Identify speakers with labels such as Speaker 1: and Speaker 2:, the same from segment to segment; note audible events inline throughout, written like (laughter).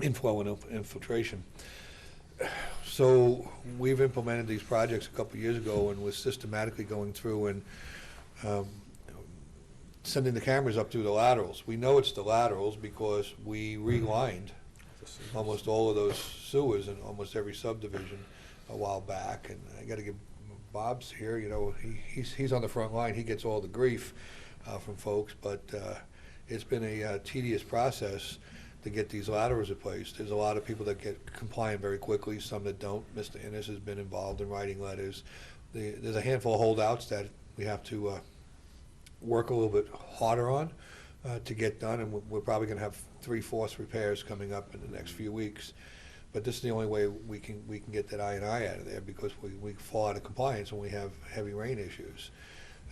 Speaker 1: inflow and inf- and filtration. So we've implemented these projects a couple years ago and was systematically going through and um, sending the cameras up through the laterals. We know it's the laterals because we relined almost all of those sewers in almost every subdivision a while back. And I got to give Bob's here, you know, he, he's, he's on the front line. He gets all the grief uh, from folks, but uh, it's been a uh, tedious process to get these laterals replaced. There's a lot of people that get compliant very quickly, some that don't. Mr. Innes has been involved in writing letters. The- There's a handful of holdouts that we have to uh, work a little bit harder on uh, to get done, and we're- we're probably going to have three-fourths repairs coming up in the next few weeks. But this is the only way we can, we can get that I and I out of there, because we, we fall out of compliance when we have heavy rain issues.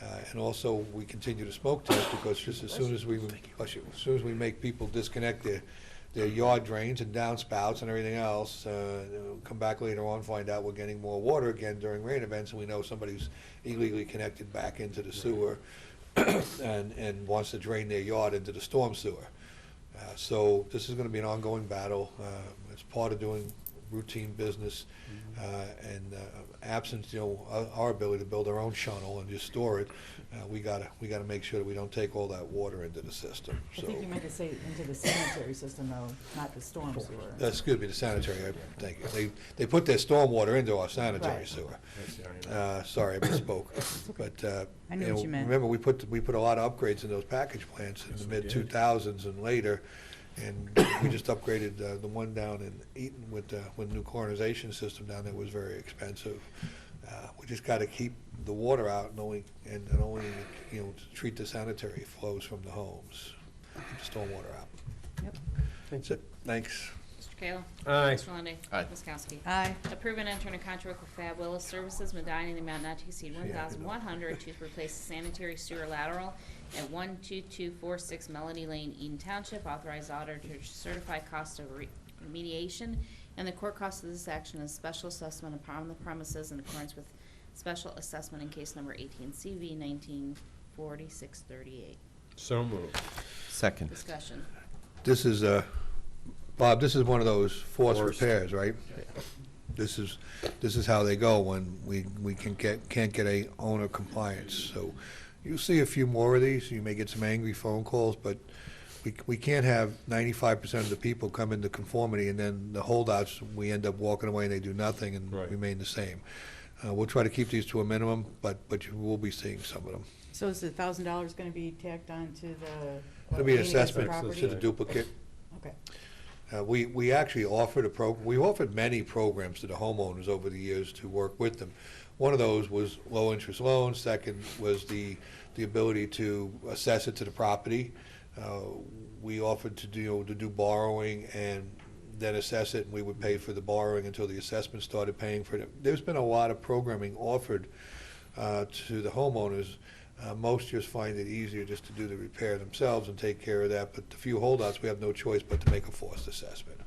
Speaker 1: Uh, And also, we continue to smoke test, because just as soon as we, bless you, as soon as we make people disconnect their, their yard drains and downspouts and everything else, uh, they'll come back later on, find out we're getting more water again during rain events, and we know somebody's illegally connected back into the sewer and, and wants to drain their yard into the storm sewer. Uh, So this is going to be an ongoing battle. Uh, It's part of doing routine business uh, and uh, absence, you know, our- our ability to build our own shuttle and just store it. uh, We gotta, we gotta make sure that we don't take all that water into the system,
Speaker 2: I
Speaker 1: so.
Speaker 2: think you meant to say into the sanitary system though, not the storm
Speaker 1: Uh,
Speaker 2: sewer.
Speaker 1: Excuse me, the sanitary, I- thank you. They, they put their stormwater into our sanitary
Speaker 2: Right.
Speaker 1: sewer. Uh, Sorry, I
Speaker 2: (laughs)
Speaker 1: misspoke. But, uh,
Speaker 2: I knew
Speaker 1: you
Speaker 2: what
Speaker 1: know,
Speaker 2: you meant.
Speaker 1: remember, we put, we put a lot of upgrades in those package plants in the
Speaker 3: Yes, we did.
Speaker 1: mid-2000s and later, and we just upgraded uh, the one down in Eaton with, uh, with new coronization system down there was very expensive. Uh, We just got to keep the water out and only, and and only, you know, treat the sanitary flows from the homes, keep the stormwater out.
Speaker 2: Yep.
Speaker 1: That's it, thanks.
Speaker 4: Mr. Kayla.
Speaker 3: Aye.
Speaker 4: Mr. Lundey.
Speaker 5: Aye.
Speaker 4: Ms. Kowski.
Speaker 2: Aye,
Speaker 4: Approve and enter in a contract with Fab Willis Services Medina in the amount not to exceed
Speaker 1: I
Speaker 4: one
Speaker 1: did not.
Speaker 4: thousand one hundred to replace the sanitary sewer lateral at one two two four six Melody Lane, Eden Township. Authorize auditor to certify cost of re- remediation and the court cost of this action is special assessment upon the premises in accordance with special assessment in case number eighteen CV nineteen forty-six thirty-eight.
Speaker 3: So moved.
Speaker 5: Second.
Speaker 4: Discussion.
Speaker 1: This is, uh, Bob, this is one of those forced
Speaker 3: Forced.
Speaker 1: repairs, right? This is, this is how they go when we, we can get, can't get a owner compliance. So you'll see a few more of these, you may get some angry phone calls, but we, we can't have ninety-five percent of the people come into conformity and then the holdouts, we end up walking away and they do nothing and
Speaker 3: Right.
Speaker 1: remain the same. Uh, we'll try to keep these to a minimum, but, but you will be seeing some of them.
Speaker 2: so is the thousand dollars gonna be tacked on to the?
Speaker 1: It'll be an
Speaker 2: remaining of the
Speaker 1: assessment
Speaker 2: property?
Speaker 1: to the duplicate.
Speaker 2: Okay,
Speaker 1: Uh, We, we actually offered a program, we offered many programs to the homeowners over the years to work with them. One of those was low-interest loans, second was the, the ability to assess it to the property. Uh, We offered to do, to do borrowing and then assess it, and we would pay for the borrowing until the assessment started paying for it. There's been a lot of programming offered uh, to the homeowners. Uh, Most just find it easier just to do the repair themselves and take care of that, but the few holdouts, we have no choice but to make a forced assessment.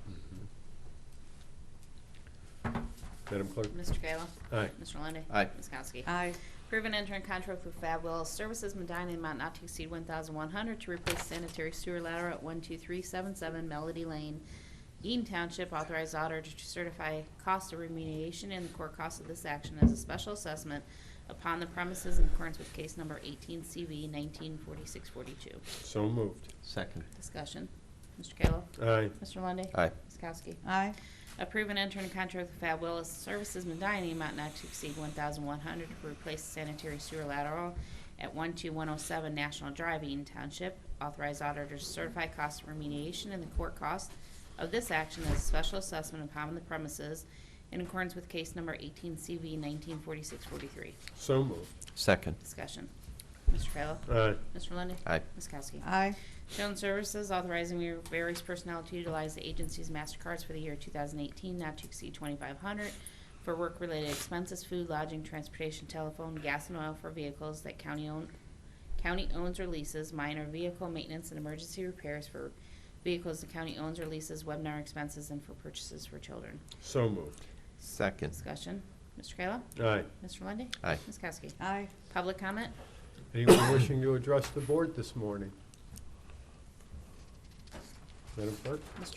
Speaker 3: Madam Clerk?
Speaker 4: Mr. Kayla.
Speaker 3: Aye.
Speaker 4: Mr. Lundey.
Speaker 5: Aye.
Speaker 4: Ms. Kowski.
Speaker 2: aye,
Speaker 4: Approve and enter in contract with Fab Willis Services Medina in amount not to exceed one thousand one hundred to replace sanitary sewer lateral at one two three seven seven Melody Lane, Eaton Township. Authorized auditor to certify cost of remediation and the core cost of this action as a special assessment upon the premises in accordance with case number eighteen CV nineteen forty-six forty-two.
Speaker 3: So moved.
Speaker 5: Second.
Speaker 4: Discussion. Mr. Kayla.
Speaker 3: Aye.
Speaker 4: Mr. Lundey.
Speaker 5: Aye.
Speaker 4: Ms. Kowski.
Speaker 2: aye,
Speaker 4: Approve and enter in contract with Fab Willis Services Medina, in the amount not to exceed one thousand one hundred to replace sanitary sewer lateral at one two one oh seven National Drive, Eaton Township. Authorize auditor to certify cost of remediation and the court cost of this action as a special assessment upon the premises in accordance with case number eighteen CV nineteen forty-six forty-three.
Speaker 3: So moved.
Speaker 5: Second.
Speaker 4: Discussion. Mr. Kayla.
Speaker 3: Uh, Aye.
Speaker 4: Mr. Lundey.
Speaker 5: Aye.
Speaker 4: Ms. Kowski.
Speaker 2: aye,
Speaker 4: Shown services authorizing your various personnel to utilize the agency's MasterCards for the year 2018, not to exceed 2,500, for work-related expenses, food, lodging, transportation, telephone, gas and oil for vehicles that county own, county owns or leases, minor vehicle maintenance and emergency repairs for vehicles the county owns or leases, webinar expenses, and for purchases for children.
Speaker 3: So moved.
Speaker 5: Second.
Speaker 4: Discussion. Mr. Kayla?
Speaker 3: Aye.
Speaker 4: Mr. Lundey?
Speaker 5: Aye.
Speaker 4: Ms. Kowski?
Speaker 2: aye.
Speaker 4: Public comment?
Speaker 3: Anyone wishing to address the board this morning? Madam Clerk?